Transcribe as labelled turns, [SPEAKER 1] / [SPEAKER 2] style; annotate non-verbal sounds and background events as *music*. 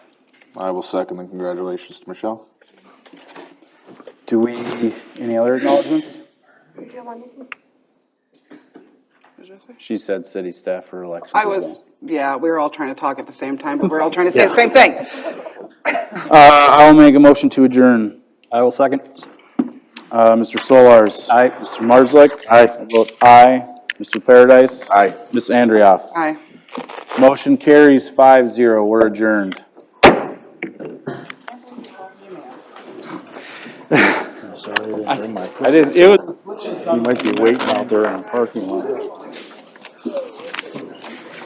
[SPEAKER 1] I will second the congratulations to Michelle.
[SPEAKER 2] Do we, any other acknowledgements? She said city staff for elections.
[SPEAKER 3] I was, yeah, we were all trying to talk at the same time, but we're all trying to say the same thing.
[SPEAKER 2] Uh, I'll make a motion to adjourn. I will second. Uh, Mr. Solars. Aye. Mr. Marslick. Aye. I vote aye. Mr. Paradise.
[SPEAKER 4] Aye.
[SPEAKER 2] Ms. Andrioff.
[SPEAKER 3] Aye.
[SPEAKER 2] Motion carries five zero. We're *laughs* adjourned.
[SPEAKER 4] Sorry, I didn't bring my-
[SPEAKER 2] I didn't, it was.
[SPEAKER 4] You might be waiting out there in the parking lot.